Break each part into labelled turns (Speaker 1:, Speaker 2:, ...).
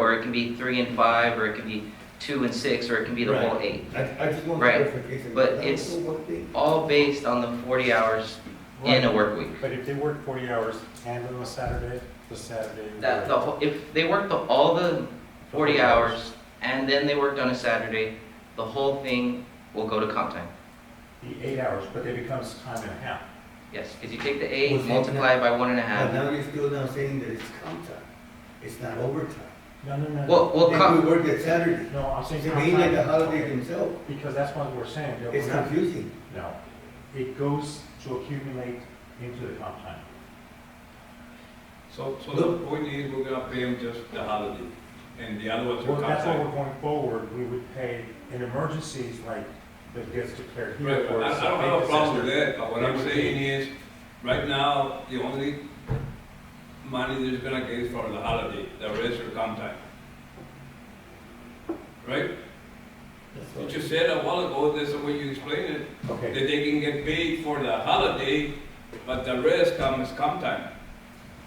Speaker 1: it can be three and five, or it can be two and six, or it can be the whole eight.
Speaker 2: I, I just want
Speaker 1: Right.
Speaker 2: clarification.
Speaker 1: But
Speaker 2: That was
Speaker 1: it's-
Speaker 2: the one thing.
Speaker 1: All based on the forty hours in a work week.
Speaker 3: But if they work forty hours and on a Saturday, the Saturday. would-
Speaker 1: That, the, whole- if they worked the, all the forty hours, and then they worked on a Saturday, the whole thing will go to comp time.
Speaker 3: The eight hours, but it becomes time and a half.
Speaker 1: Yes, because you take the eight,
Speaker 2: Was it-
Speaker 1: multiply it by one and a
Speaker 2: But
Speaker 1: half.
Speaker 2: now you're still now saying that it's comp time, it's not overtime.
Speaker 3: No, no, no. no.
Speaker 1: Well, well,
Speaker 2: They
Speaker 1: comp,
Speaker 2: do work at Saturday,
Speaker 3: No, I'm saying.
Speaker 2: they made it a holiday themselves,
Speaker 3: Because that's what we're saying. that
Speaker 2: it's
Speaker 3: we're not-
Speaker 2: confusing.
Speaker 3: No, it goes to accumulate into the comp time.
Speaker 4: So, so the point is, we're gonna pay them just the holiday, and the other ones
Speaker 3: Well,
Speaker 4: are
Speaker 3: that's why
Speaker 4: contract.
Speaker 3: we're going forward, we would pay in emergencies like that gets declared here
Speaker 4: Right,
Speaker 3: for.
Speaker 4: I, I don't have a problem with that, but what I'm saying is, right now, the only money that's gonna get is for the holiday, the rest will come time. Right?
Speaker 2: That's
Speaker 4: You
Speaker 2: what-
Speaker 4: just said a while ago, that's the way you explained it, that
Speaker 3: Okay,
Speaker 4: they can get paid for the holiday, but the rest comes come time.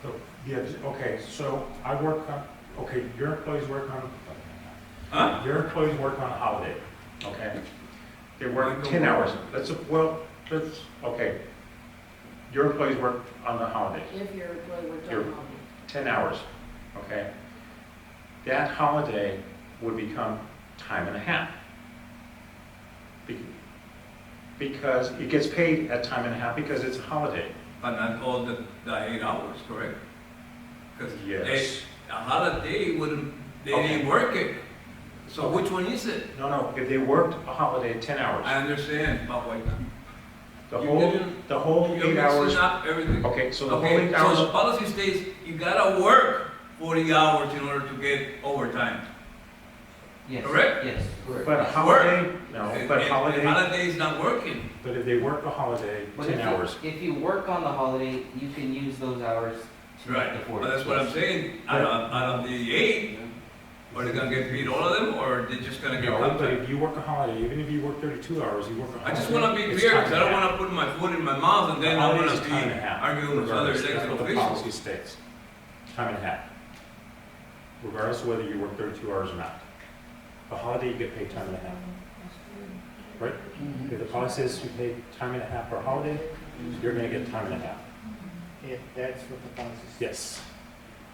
Speaker 3: so, yeah, okay, so I work on, okay, your employees work on,
Speaker 4: Huh?
Speaker 3: your employees work on a holiday, okay? They
Speaker 4: Mine
Speaker 3: work
Speaker 4: don't
Speaker 3: ten
Speaker 4: work.
Speaker 3: hours, that's, a- well, that's, okay. Your employees work on the holiday,
Speaker 5: If your employee worked
Speaker 3: Your-
Speaker 5: on holiday.
Speaker 3: 10 hours, okay? That holiday would become time and a half. Be- Because it gets paid at time and a half because it's a holiday.
Speaker 4: But not all the, the eight hours, correct? Cause they,
Speaker 3: Yes.
Speaker 4: a holiday wouldn't, they
Speaker 3: Okay.
Speaker 4: didn't work it, so which one is it?
Speaker 3: No, no, if they worked a holiday, 10
Speaker 4: I
Speaker 3: hours.
Speaker 4: understand, but wait,
Speaker 3: The
Speaker 4: you
Speaker 3: whole,
Speaker 4: didn't-
Speaker 3: the whole
Speaker 4: you're
Speaker 3: Oh, eight hours,
Speaker 4: mixing up everything.
Speaker 3: okay, so the whole
Speaker 4: Okay,
Speaker 3: eight
Speaker 4: so the
Speaker 3: hours,
Speaker 4: policy states you gotta work forty hours in order to get overtime.
Speaker 1: yes,
Speaker 4: Correct?
Speaker 1: yes.
Speaker 3: but a
Speaker 1: uh,
Speaker 3: holiday, no,
Speaker 4: And-
Speaker 3: but
Speaker 4: and- and
Speaker 3: holiday,
Speaker 4: Holiday is not working.
Speaker 3: but if they work a holiday,
Speaker 1: But
Speaker 3: 10
Speaker 1: if you-
Speaker 3: hours.
Speaker 1: If you work on the holiday, you can use those hours to make the
Speaker 4: But
Speaker 1: forty.
Speaker 4: that's what I'm saying, out of, out of the eight, are they gonna get paid all of them, or they just gonna get
Speaker 3: No, but
Speaker 4: compensated?
Speaker 3: if you work a holiday, even if you work 32 hours, you work a holiday.
Speaker 4: I just wanna be
Speaker 3: it's
Speaker 4: clear,
Speaker 3: time
Speaker 4: cause
Speaker 3: and
Speaker 4: I
Speaker 3: a
Speaker 4: don't
Speaker 3: half.
Speaker 4: wanna put my foot in my mouth and then I
Speaker 3: Holidays
Speaker 4: wanna
Speaker 3: is time and a
Speaker 4: be
Speaker 3: half,
Speaker 4: arguing with other
Speaker 3: regardless. That's
Speaker 4: elected
Speaker 3: what the
Speaker 4: officials.
Speaker 3: Policy states, time and a half. Regardless of whether you work thirty-two hours or not. A holiday, you get paid time and a half. Right? If the policy says you pay time and a half for a holiday, you're gonna get time and a half.
Speaker 6: If that's what the policy says.
Speaker 3: Yes.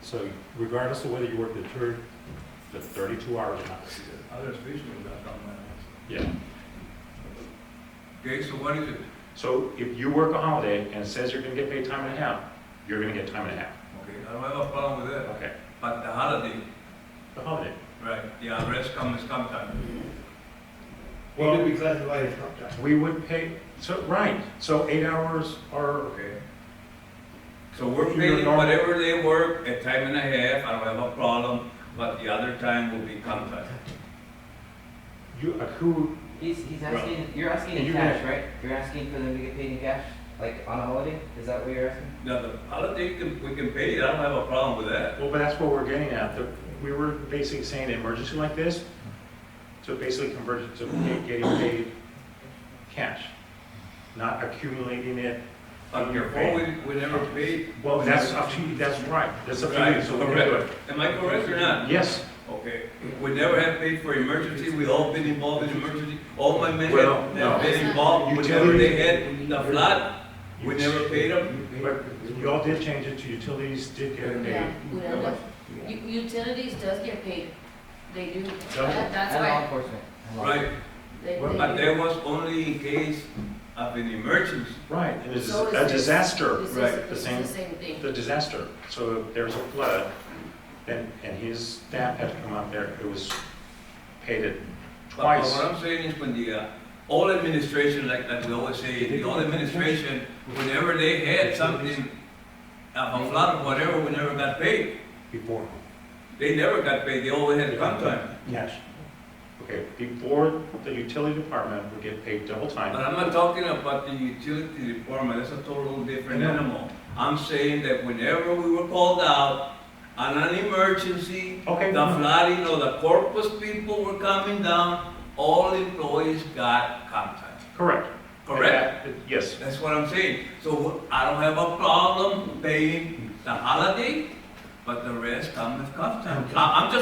Speaker 3: So regardless of whether you work the third, the thirty-two hours or not.
Speaker 4: Other officials, that's not my-
Speaker 3: Yeah.
Speaker 4: Okay, so what is it?
Speaker 3: So if you work a holiday and it says you're gonna get paid time and a half, you're gonna get time and a half.
Speaker 4: Okay, I don't have a problem with that,
Speaker 3: Okay.
Speaker 4: but the holiday,
Speaker 3: The holiday.
Speaker 4: right, the arrest comes sometime.
Speaker 2: It could be classified as comp time.
Speaker 3: We would pay, so, right, so eight hours are
Speaker 4: Okay. So we're
Speaker 3: If you're
Speaker 4: paying
Speaker 3: normal-
Speaker 4: whatever they work, a time and a half, I don't have a problem, but the other time will be contract.
Speaker 3: You uh, accrue,
Speaker 1: He's, he's asking, you're asking
Speaker 3: And
Speaker 1: in
Speaker 3: you're
Speaker 1: cash, right? You're asking for them to get paid in cash, like on a holiday? Is that what you're asking?
Speaker 4: Now, the holiday, can- we can pay it, I don't have a problem with that.
Speaker 3: well, but that's what we're getting at. The- We were basically saying an emergency like this, to basically convert it to pay- getting paid cash, not accumulating it.
Speaker 4: But
Speaker 3: You're
Speaker 4: before
Speaker 3: paying.
Speaker 4: we, we never paid.
Speaker 3: Well, that's up to you, that's right, that's up to you,
Speaker 4: Right,
Speaker 3: so we can do it.
Speaker 4: correct. Am I correct or not?
Speaker 3: Yes,
Speaker 4: Okay, we never have paid for emergency, we all been involved in emergency, all my men
Speaker 3: Well,
Speaker 4: have
Speaker 3: no.
Speaker 4: have been involved, whenever
Speaker 3: Utility-
Speaker 4: they had the flood, we never paid them.
Speaker 3: but y'all did change it to utilities, did get
Speaker 5: Yeah,
Speaker 3: paid.
Speaker 5: we don't know. U- Utilities does get paid, they do, That- that's
Speaker 1: And law
Speaker 5: why,
Speaker 1: enforcement. And law
Speaker 4: Right,
Speaker 5: they,
Speaker 3: Well,
Speaker 4: but
Speaker 5: they
Speaker 4: there was only in case of an emergency.
Speaker 3: Right, and it's
Speaker 5: So is
Speaker 3: a
Speaker 5: this- do.
Speaker 3: disaster,
Speaker 5: This is-
Speaker 4: right, the
Speaker 5: This
Speaker 3: same-
Speaker 5: is the same thing.
Speaker 3: the disaster. So if there's a flood, and, and his staff had to come out there, it was paid it
Speaker 4: But- but
Speaker 3: twice.
Speaker 4: What I'm saying is when the, uh, all administration, like, like we always say, the all administration, whenever they had something, uh, a flood or whatever, we never got paid.
Speaker 3: Before.
Speaker 4: They never got paid, they always had comp time.
Speaker 3: Yes. Okay, before the utility department would get paid double
Speaker 4: But
Speaker 3: time.
Speaker 4: I'm not talking about the utility department, that's a total different animal. I'm saying that whenever we were called out on an emergency,
Speaker 3: Okay,
Speaker 4: the flooding or the corpus people were coming down, all employees got comp time,
Speaker 3: correct.
Speaker 4: correct?
Speaker 3: That- Yes,
Speaker 4: That's what I'm saying. So I don't have a problem paying the holiday, but the rest I'm with custom. I- I'm just